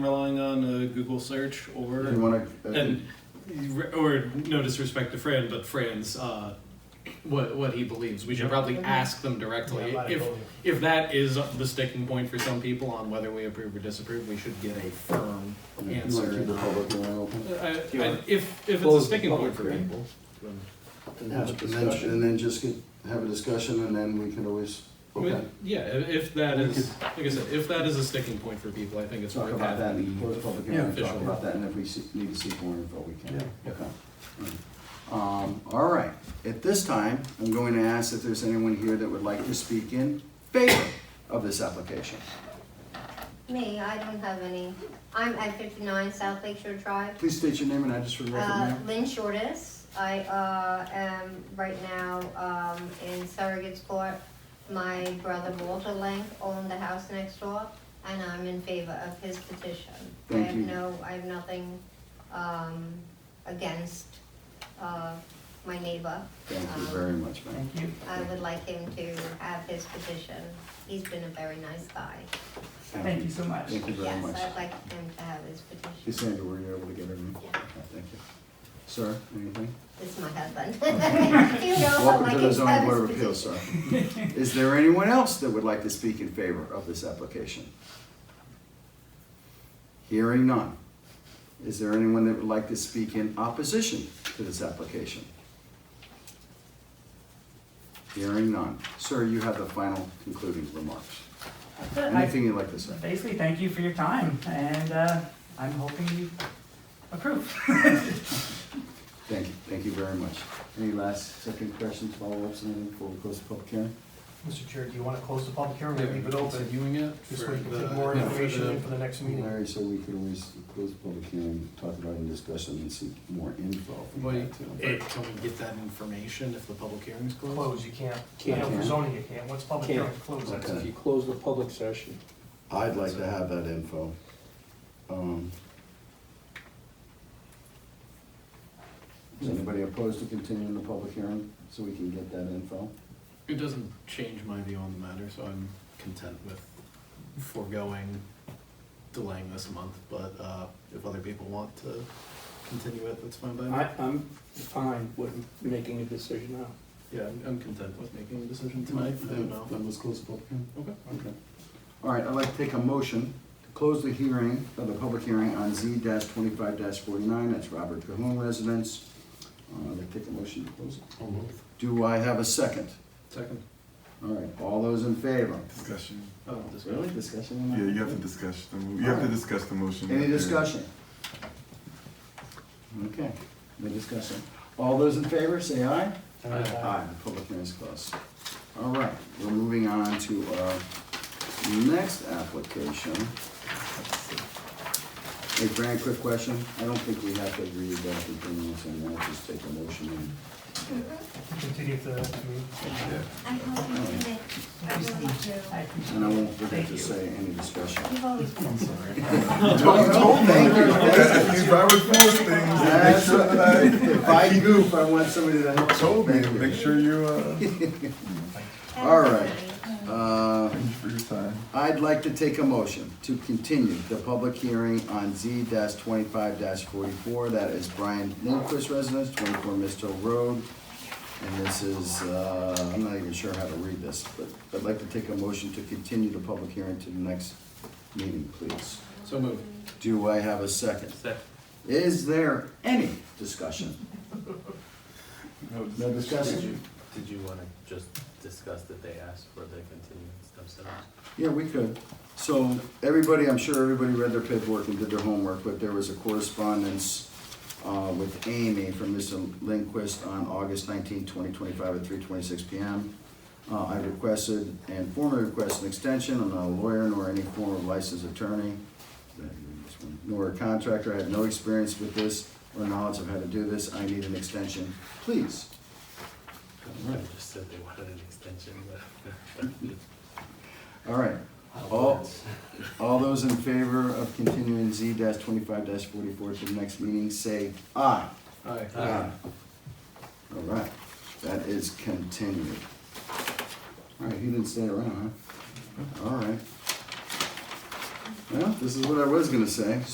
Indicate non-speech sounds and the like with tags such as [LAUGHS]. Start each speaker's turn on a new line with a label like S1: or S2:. S1: relying on a Google search
S2: You uh,
S1: or
S2: want to?
S3: and or no disrespect to Fran, but Fran's uh, what what he believes. We should probably ask them directly
S4: Yeah,
S3: if
S4: liability.
S3: if that is the sticking point for some people on whether we approve or disapprove. We should get a firm
S2: You want to keep the
S3: answer. Uh,
S2: public hearing open?
S3: I,
S5: you
S3: I,
S5: want-
S3: if if it's a
S5: Close
S3: sticking
S5: the
S3: point
S5: public
S3: for
S5: hearing.
S3: people, then
S2: And
S5: Have a
S2: just- and then,
S5: discussion.
S2: and then just get, have a discussion and then we can always, okay.
S3: yeah, if if that
S2: We
S3: is like I said, if that is a sticking point for people, I think it's
S2: Talk
S3: worth
S2: about that
S3: having
S2: and
S3: the
S2: close the public hearing, and talk
S3: official-
S2: about that, and if we see- need to seek more info, we can.
S5: Yeah.
S2: Okay. Um, all right, at this time, I'm going to ask if there's anyone here that would like to speak in favor of this application.
S6: Me, I don't have any. I'm at fifty-nine South Lake Shore Drive.
S2: Please state your name and address for the record,
S6: Uh,
S2: ma'am.
S6: Lynn Shortis, I, uh, am right now, um, in surrogate's court. My brother Walter Lang owned the house next door, and I'm in favor of his petition. I
S2: Thank
S6: have
S2: you.
S6: no, I have nothing, um, against, uh, my neighbor.
S2: Thank you
S6: Um,
S2: very much, ma'am.
S5: Thank you.
S6: I would like him to have his petition. He's been a very nice guy.
S5: Thank you so much.
S2: Thank you very
S6: Yes,
S2: much.
S6: I'd like him to have his petition.
S2: Cassandra, were you able to get everything?
S6: Yeah.
S2: Okay, Thank you. Sir, anything?
S6: This is my husband. [LAUGHS] You know how
S2: Welcome
S6: my
S2: to the
S6: kids
S2: zoning
S6: have
S2: board of
S6: this
S2: appeals, sir. Is there anyone else that would like to speak in favor of this application? Hearing none. Is there anyone that would like to speak in opposition to this application? Hearing none. Sir, you have the final concluding remarks.
S5: That's it. I-
S2: Anything you'd like to say?
S5: Basically, thank you for your time, and uh, I'm hoping you approve. [LAUGHS]
S2: Thank you, thank you very much. Any last second questions, follow-ups, anything before we close the public hearing?
S4: Mr. Chair, do you want to close the public hearing
S3: Yeah,
S4: or leave it open?
S3: Continuing it
S4: This
S3: for
S4: way you can
S3: the-
S4: put more
S3: yeah, for
S4: information
S3: the-
S4: in for the next meeting.
S2: Larry, so we could always close the public hearing, talk about it in discussion and seek more info
S3: Well,
S2: from
S3: you-
S2: that too.
S3: eh, can we get that information if the public hearing's closed?
S4: Close, you can't. I
S5: Can't.
S4: know for zoning you can't. Once public
S5: Can't.
S4: hearing closes, that's
S2: Okay.
S4: it.
S5: If you close the public session.
S2: I'd like to have that info. Um, Is anybody opposed to continuing the public hearing so we can get that info?
S3: It doesn't change my view on the matter, so I'm content with foregoing, delaying this a month, but, uh, if other people want to continue it, that's fine by me.
S7: I, I'm fine with making a decision now.
S3: Yeah, I'm, I'm content with making a decision tonight, I don't
S2: Then-
S3: know.
S2: Then let's close the public hearing.
S3: Okay.
S2: Okay. All right, I'd like to take a motion to close the hearing, uh, the public hearing on Z twenty-five forty-nine, that's Robert Cahoon residence. Uh, I'd like to take a motion to close it.
S3: I'll move.
S2: Do I have a second?
S3: Second.
S2: All right, all those in favor?
S8: Discussion.
S3: Oh, discussion.
S2: Discussion? on that?
S8: Yeah, you have to discuss the, mo- you have to discuss the motion.
S2: Any
S8: that you're-
S2: discussion? Okay, no discussion. All those in favor, say aye.
S4: uh,
S2: Aye. The public hearing is closed. All right, we're moving on to our next application. Hey, Fran, quick question. I don't think we have to agree about the things and we'll just take a motion and
S4: Continue the meeting.
S8: Yeah.
S6: I'm hoping to make, I really do.
S2: And I won't forget to say any discussion.
S6: You've always been so
S2: Thank you, thank you.
S8: If I would post things, make
S2: That's
S8: sure
S2: what
S8: that
S2: I,
S8: I
S2: if I goof, I want somebody to help.
S8: told me, to
S2: Thank you.
S8: make sure you,
S2: [LAUGHS]
S8: uh, thank
S2: All right. Uh,
S8: you for your time.
S2: I'd like to take a motion to continue the public hearing on Z twenty-five forty-four. That is Brian Lindquist residence, twenty-four Misto Road. And this is, uh, I'm not even sure how to read this, but I'd like to take a motion to continue the public hearing to the next meeting, please.
S3: So moved.
S2: Do I have a second?
S3: Second.
S2: Is there any discussion? No
S5: Did
S2: discussion?
S5: you-
S9: Did you want to just discuss that they asked for the continuance themselves?
S2: Yeah, we could. So, everybody, I'm sure everybody read their paperwork and did their homework, but there was a correspondence uh, with Amy from Mr. Lindquist on August 19, 2025 at 3:26 PM. Uh, I requested and formally requested an extension. I'm not a lawyer nor any form of licensed attorney, nor a contractor. I have no experience with this or knowledge of how to do this. I need an extension, please.
S9: I just said they wanted an extension, but.
S2: All right. All, all those in favor of continuing Z twenty-five forty-four to the next meeting, say aye.
S3: Aye.
S9: uh,
S2: All right, that is continued. All right, he didn't stay around, huh? All right. Well, this is what I was gonna say,